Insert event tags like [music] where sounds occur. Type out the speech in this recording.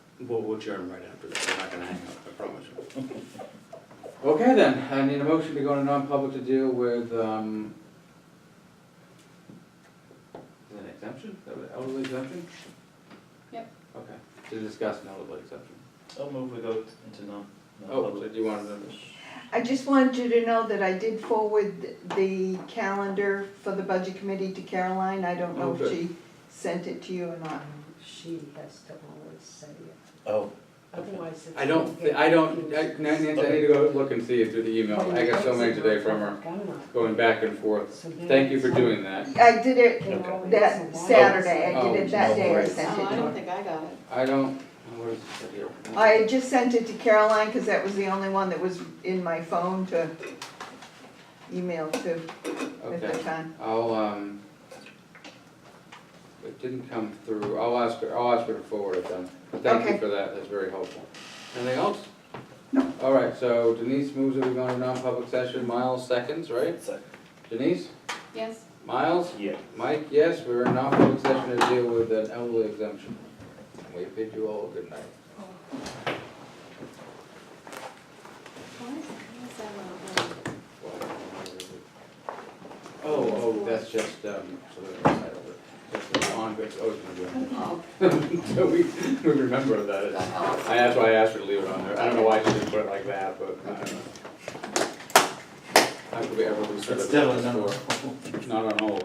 We'll, we'll adjourn right after this, we're not gonna hang up, I promise you. [laughs] Okay then, I need a motion to go into non-public to deal with, um, is it an exemption, Is that what- elderly exemption? Yep. Okay, to discuss an elderly exemption. I'll move we go into non. Oh, non-public. so you wanted to, I just wanted you to know that I did forward the calendar for the budget committee to Caroline. I don't know Oh, if good. she sent it to you or not. She has to always say it, Oh, otherwise it's. I don't, thi- I don't, I- Nancy, I need to go look and see through the email, I got so many today from her, going back and forth. Thank you for doing that. I did it that Saturday, I Oh, did it that day, I alright. sent Oh, I it to don't her. think I got it. I don't, what is this right here? I had just sent it to Caroline because that was the only one that was in my phone to email to at the Okay, time. I'll, um, it didn't come through, I'll ask her, I'll ask her to forward it then. But Thank you Okay. for that, that's very helpful. Anything else? No. All right, so Denise moves that we go into non-public session, Miles seconds, right? it's a- Denise, Yes, Miles, yeah. Mike, yes, we're in non-public session to deal with an elderly exemption. And We bid you all good night. why is why is that not working? Oh, oh, that's just, um, so that's the title of it. That's the on, it's always been Oh, doing. So we, we remember that. it's- oh, I, that's why I asked her to leave it on there. I don't know why she didn't put it like that, but I don't know. How could we ever lose sight of It's that definitely not. before? Not on hold.